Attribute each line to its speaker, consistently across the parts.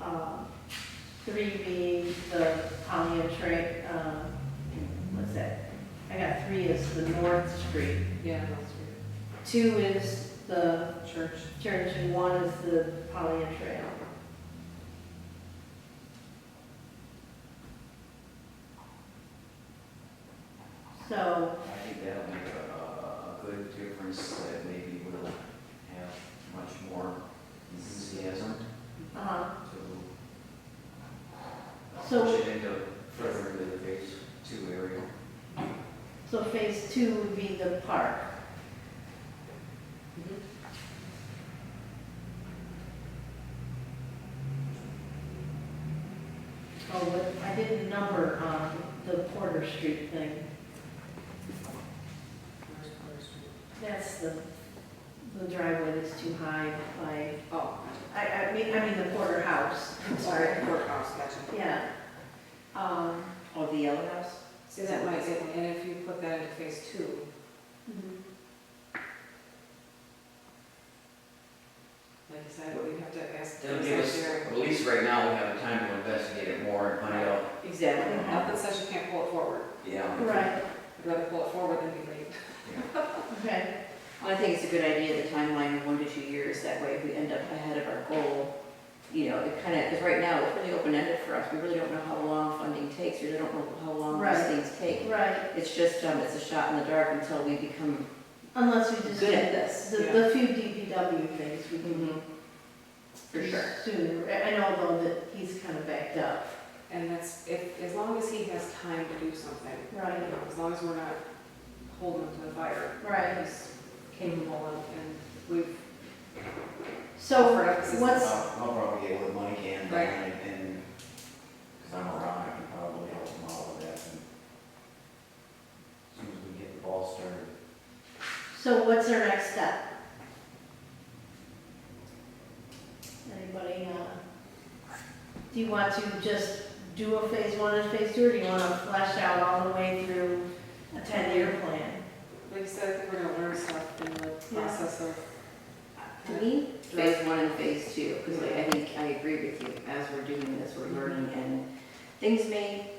Speaker 1: uh, Three being the Pontiac Trail, um, what's that? I got three is the North Street.
Speaker 2: Yeah.
Speaker 1: Two is the
Speaker 2: Church.
Speaker 1: church and one is the Pontiac Trail. So,
Speaker 3: I think that'll make a, a- a good difference, that maybe we'll have much more enthusiasm
Speaker 1: uh,
Speaker 3: to
Speaker 1: So-
Speaker 3: push it into further into the phase two area.
Speaker 1: so phase two would be the park. Mm-hmm. Oh, but I didn't number on the Porter Street thing. That's the, the driveway that's too high by,
Speaker 2: Oh,
Speaker 1: I, I mean, I mean the Porter House, I'm sorry.
Speaker 2: sorry, courthouse, gotcha.
Speaker 1: Yeah. Um, or the yellow house?
Speaker 2: So that might, get- and if you put that into phase two,
Speaker 1: mm-hmm.
Speaker 2: like I said, we'd have to ask. the
Speaker 3: That'll give us,
Speaker 2: secretary.
Speaker 3: at least right now, we have time to investigate it more and find out,
Speaker 1: Exactly.
Speaker 2: Not that session can't pull it forward,
Speaker 3: yeah.
Speaker 1: Right,
Speaker 2: we'd rather pull it forward than be late.
Speaker 1: okay.
Speaker 4: Well, I think it's a good idea, the timeline of one to two years, that way if we end up ahead of our goal, you know, it kind of, because right now, it's really open-ended for us, we really don't know how long funding takes, we really don't know how long
Speaker 1: Right.
Speaker 4: these things take.
Speaker 1: Right,
Speaker 4: It's just, um, it's a shot in the dark until we become
Speaker 1: unless we just
Speaker 4: good at
Speaker 1: do
Speaker 4: this,
Speaker 1: the, the few DPW things we can do.
Speaker 4: Mhm. for sure.
Speaker 1: Sooner, I I know though that he's kind of backed up.
Speaker 2: And that's, if, as long as he has time to do something, you
Speaker 1: Right,
Speaker 2: know, as long as we're not holding him to the fire,
Speaker 1: right.
Speaker 2: he's capable and, and we've.
Speaker 1: So
Speaker 2: offered up assistance.
Speaker 1: what's-
Speaker 3: I'll I'll probably get what money can,
Speaker 2: Right.
Speaker 3: and, and, because I'm around, I can probably help them out with that. and As soon as we get the ball started.
Speaker 1: So what's our next step? Anybody, uh, do you want to just do a phase one and phase two, or do you want to flesh out all the way through a ten-year plan?
Speaker 2: Like you said, I think we're gonna learn stuff in the process of.
Speaker 4: To me, phase one and phase two, because I think, I agree with you, as we're doing this, we're learning, and things may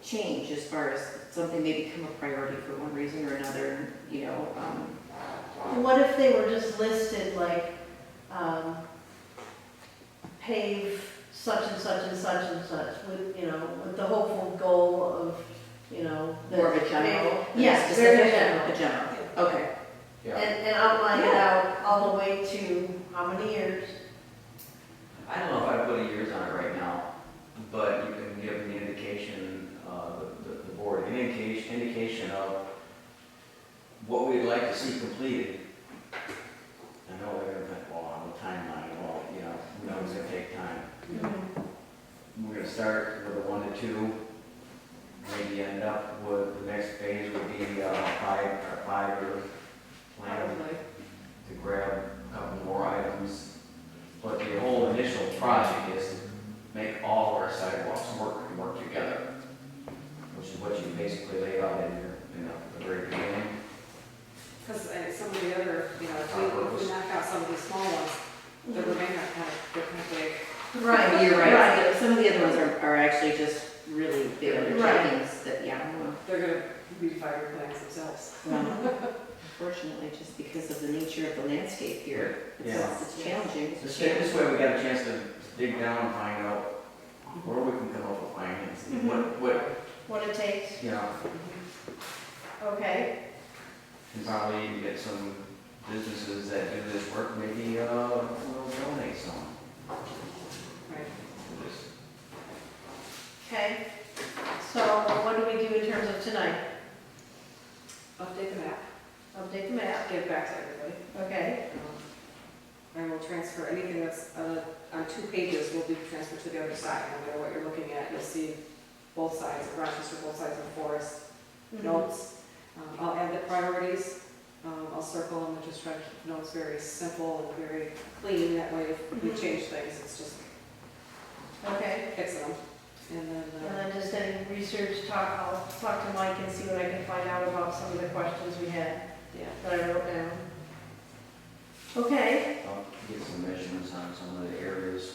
Speaker 4: change as far as, something may become a priority for one reason or another, you know, um,
Speaker 1: What if they were just listed like, um, pave such and such and such and such, with, you know, with the hopeful goal of, you know. that-
Speaker 4: More of a general? than a
Speaker 1: Yes, very
Speaker 4: specific?
Speaker 1: general.
Speaker 4: A general, okay.
Speaker 1: And, and outline it out all the way to how many years?
Speaker 3: I don't know if I put a years on it right now, but you can give an indication, uh, the- the, the board, an indication, indication of what we'd like to see completed. I know we're gonna put, well, on the timeline, well, you know, we know it's gonna take time. We're gonna start with a one to two, maybe end up with, the next phase would be, uh, five, or five-year plan
Speaker 2: Probably.
Speaker 3: to grab a couple more items. But the whole initial project is to make all of our sidewalks work and work together, which is what you basically laid out in your, you know, the very beginning.
Speaker 2: Because uh, some of the other, you know, if we- if we knock out some of these small ones, the
Speaker 1: Mhm.
Speaker 2: remainder kind of, they're kind of big.
Speaker 1: Right,
Speaker 4: But You're
Speaker 1: right.
Speaker 4: right, some of the other ones are, are actually just really big
Speaker 3: Right.
Speaker 4: undertakings that, yeah, well,
Speaker 1: Mm-hmm.
Speaker 2: They're gonna be fire plants themselves.
Speaker 4: well, unfortunately, just because of the nature of the landscape here,
Speaker 3: Yeah.
Speaker 4: it's, it's challenging.
Speaker 3: So Stan, this way we got a chance to dig down and find out where we can come up with financing, what,
Speaker 2: Mm-hmm.
Speaker 3: what,
Speaker 1: What it takes,
Speaker 3: you know,
Speaker 1: okay.
Speaker 3: and probably even get some businesses that do this work, maybe, uh, we'll donate some
Speaker 2: Right.
Speaker 3: to this.
Speaker 1: Okay, so what do we do in terms of tonight?
Speaker 2: Update the map,
Speaker 1: Update the map,
Speaker 2: give back to everybody.
Speaker 1: okay?
Speaker 2: Um, And we'll transfer anything that's uh, on two pages will be transferred to the other side. No matter what you're looking at, you'll see both sides, of Rochester, both sides of Forest,
Speaker 1: Mm-hmm.
Speaker 2: notes. Um, I'll add the priorities. Um, I'll circle them and just try to keep notes very simple and very clean. That way if we
Speaker 1: Mhm.
Speaker 2: change things, it's just
Speaker 1: Okay,
Speaker 2: fixing them. And then,
Speaker 1: and
Speaker 2: uh,
Speaker 1: then just any research, talk, I'll talk to Mike and see what I can find out about some of the questions we had
Speaker 2: yeah.
Speaker 1: that I wrote down. Okay,
Speaker 3: I'll get some measurements on some of the areas